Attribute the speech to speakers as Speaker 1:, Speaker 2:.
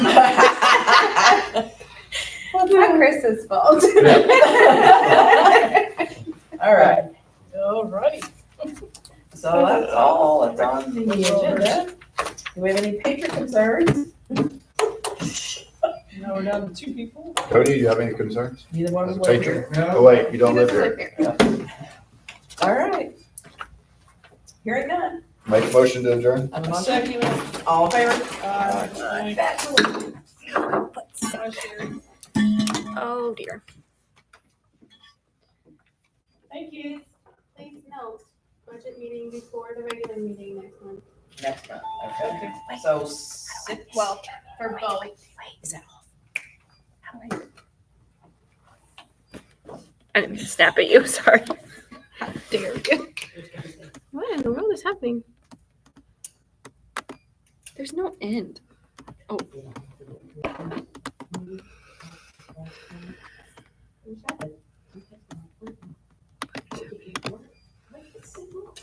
Speaker 1: Chris's fault.
Speaker 2: All right,
Speaker 3: All right.
Speaker 2: so that's all that's on the agenda.
Speaker 3: No,
Speaker 2: Do we have any patron concerns?
Speaker 3: we're down to two people.
Speaker 4: Cody, do you have any concerns?
Speaker 2: Neither one of
Speaker 4: As a
Speaker 2: us live
Speaker 4: patron?
Speaker 2: here.
Speaker 4: Oh, wait, you don't live here.
Speaker 2: All right. Hearing none.
Speaker 4: Make a motion to adjourn?
Speaker 2: I'm on
Speaker 3: Second.
Speaker 2: All in favor?
Speaker 3: Aye. Aye, Sherry.
Speaker 5: Oh dear.
Speaker 3: Thank you.
Speaker 6: Please note, budget meeting before the regular meeting next month.
Speaker 2: Next month, okay. So six.
Speaker 1: Well, for both.
Speaker 5: I didn't mean to snap at you. Sorry. How dare you? What in the world is happening? There's no end. Oh,